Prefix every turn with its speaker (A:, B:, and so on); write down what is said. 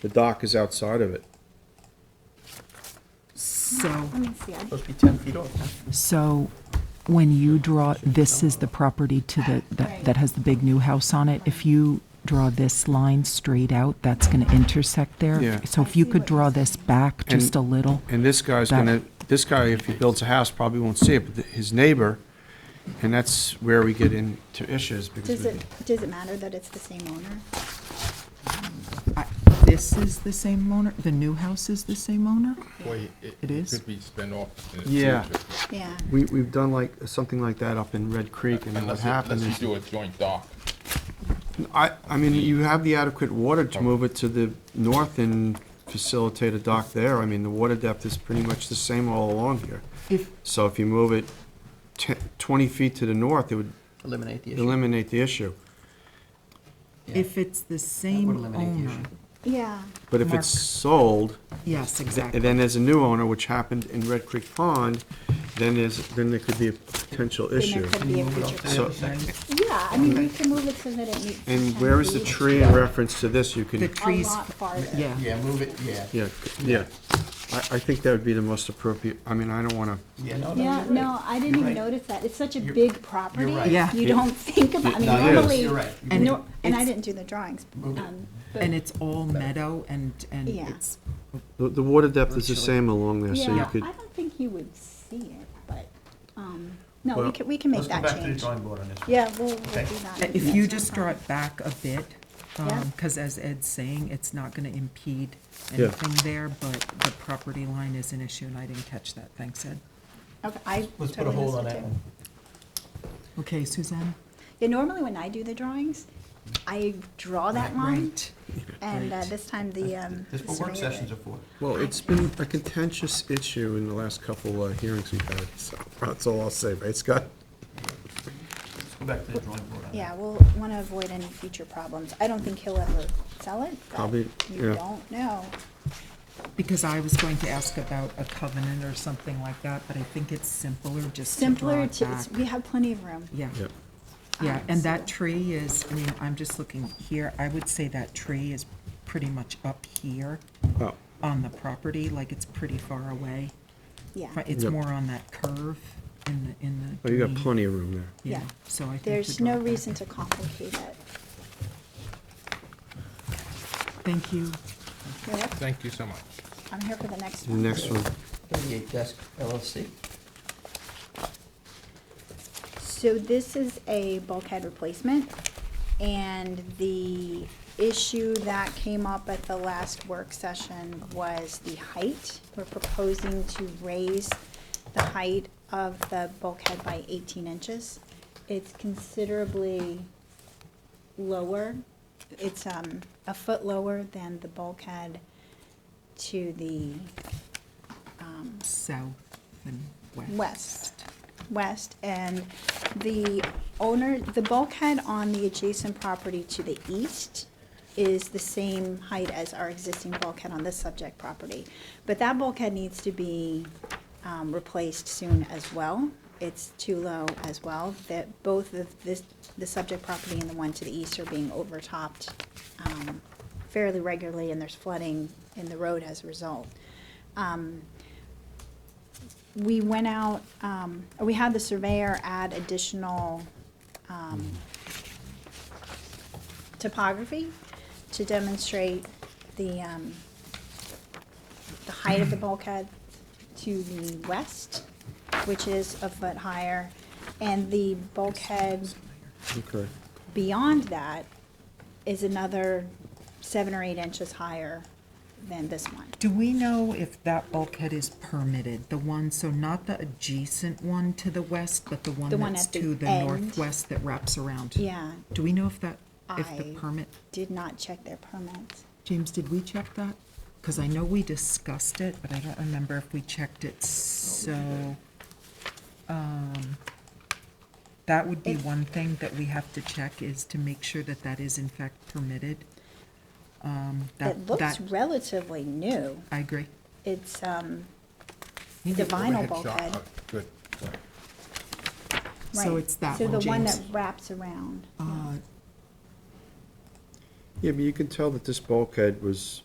A: The dock is outside of it.
B: So,
C: Let me see, I
D: Supposed to be 10 feet off.
B: so when you draw, this is the property to the, that, that has the big new house on it. If you draw this line straight out, that's gonna intersect there.
A: Yeah.
B: So if you could draw this back just a little.
A: And this guy's
B: That-
A: gonna, this guy, if he builds a house, probably won't see it, but th- his neighbor, and that's where we get into issues because
C: Does
A: we-
C: it, does it matter that it's the same owner?
B: I- This is the same owner, the new house is the same owner?
E: Boy,
B: It is.
E: Could be spin off. in the
A: Yeah.
E: future.
C: Yeah.
A: we, we've done like, something like that up in Red Creek and then what
E: Unless, it-
A: happened
E: unless you
A: is.
E: do a joint dock.
A: I, I mean, you have the adequate water to move it to the north and facilitate a dock there. I mean, the water depth is pretty much the same all along here.
B: If,
A: So if you move it te- twenty feet to the north, it would
D: Eliminate the issue.
A: eliminate the issue.
B: if it's the
D: Would
B: same
D: eliminate the
B: owner.
D: issue.
C: Oh, Yeah,
A: But if
B: Mark.
A: it's sold,
B: Yes,
A: and
B: exactly.
A: then there's a new owner, which happened in Red Creek Pond, then there's, then there could be a potential
C: then there
A: issue.
C: could be a future.
A: So,
C: Yeah, I mean, we can move it so that it meets.
A: and
C: 10
A: where is the
C: feet.
A: tree in reference to this? You
B: The
A: can,
C: A
B: trees,
C: lot farther.
B: yeah.
D: Yeah, move it, yeah.
A: yeah, c- yeah. I, I think that would be the most appropriate, I mean, I don't wanna,
D: Yeah, no, no,
C: Yeah,
D: you're right.
C: no, I didn't even
D: right.
C: notice that. It's such a
D: You're-
C: big property.
D: right.
B: Yeah.
C: You don't think about, I mean,
D: No, you're-
C: normally.
D: you're right. You
B: And
C: nor- And I
B: it's-
C: didn't do the drawings.
D: Move it.
C: um, but-
B: And it's all meadow and, and
C: Yeah.
B: it's,
A: the, the water depth is the same along there, so you
C: Yeah, I
A: could,
C: don't think you would see it, but, um, no, we
A: Well-
C: can, we can make
D: Let's go
C: that
D: back to the
C: change.
D: drawing board on this. one.
C: Yeah, we'll, we'll do
D: Okay.
C: that.
B: if you just draw it back a bit,
C: Yeah.
B: because as Ed's saying, it's not going to impede
A: Yeah.
B: anything there, but the property line is an issue, and I didn't catch that. Thanks, Ed.
C: Okay, I
D: Let's put a
C: totally
D: hold on
C: missed it too.
D: that one.
B: Okay, Suzanne?
C: Yeah, normally when I do the drawings, I draw that line,
B: Right.
C: and uh,
B: right.
C: this time the, um.
D: This is
C: the
D: what work
C: surveyor
D: sessions are
C: did.
D: for.
A: well, it's been a contentious issue in the last couple uh, hearings we've had, so that's all I'll say, right, Scott?
D: Let's go back to the drawing board on that.
C: Yeah, we'll want to avoid any future problems. I don't think he'll ever sell it, but
A: Probably,
C: you
A: yeah.
C: don't know.
B: Because I was going to ask about a covenant or something like that, but I think it's simpler just to draw
C: Simpler
B: it
C: to, it's-
B: back.
C: we have plenty of room.
B: Yeah,
A: Yeah,
B: yeah,
C: Um,
B: and
C: so-
B: that tree is, I mean, I'm just looking here, I would say that tree is pretty much up here
A: oh,
B: on the property, like it's pretty far away.
C: Yeah,
B: But It's
A: Yep.
B: more on that curve in the, in the.
A: oh, you got
B: green.
A: plenty of room there.
B: Yeah,
C: Yeah.
B: so I think.
C: there's
B: to draw
C: no
B: it back
C: reason
B: in.
C: to complicate it.
B: Thank you.
C: You're welcome.
E: Thank you so much.
C: I'm here for the next
A: The
C: one.
A: next one,
D: 38 Desk LLC.
C: So this is a bulkhead replacement, and the issue that came up at the last work session was the height. We're proposing to raise the height of the bulkhead by eighteen inches. It's considerably lower, it's, um, a foot lower than the bulkhead to the
B: South and west.
C: west, west, and the owner, the bulkhead on the adjacent property to the east is the same height as our existing bulkhead on this subject property. But that bulkhead needs to be um, replaced soon as well. It's too low as well, that both of this, the subject property and the one to the east are being overtopped um, fairly regularly, and there's flooding in the road as a result we went out, um, we had the surveyor add additional, um, topography to demonstrate the, um, the height of the bulkhead to the west, which is a foot higher, and the bulkhead
A: okay.
C: beyond that is another seven or eight inches higher than this one.
B: Do we know if that bulkhead is permitted, the one, so not the adjacent one to the west, but the one
C: The one
B: that's
C: at the
B: to the
C: end.
B: northwest that wraps around?
C: Yeah,
B: Do we know if that, if the
C: I-
B: permit,
C: did not check their permits.
B: James, did we check that? Because I know we discussed it, but I don't remember if we checked it, so, um, that would be one thing that we have to check is to make sure that that is in fact permitted. Um,
C: It
B: that,
C: looks
B: that,
C: relatively new.
B: I agree.
C: It's, um,
E: You
C: The
E: did a
C: vinyl
E: overhead shot.
C: bulkhead.
E: Uh, Good. Sorry.
B: So
C: right,
B: it's that
C: So
B: one,
C: the one that
B: James.
C: wraps around.
B: Uh,
A: Yeah, but you can tell that this bulkhead was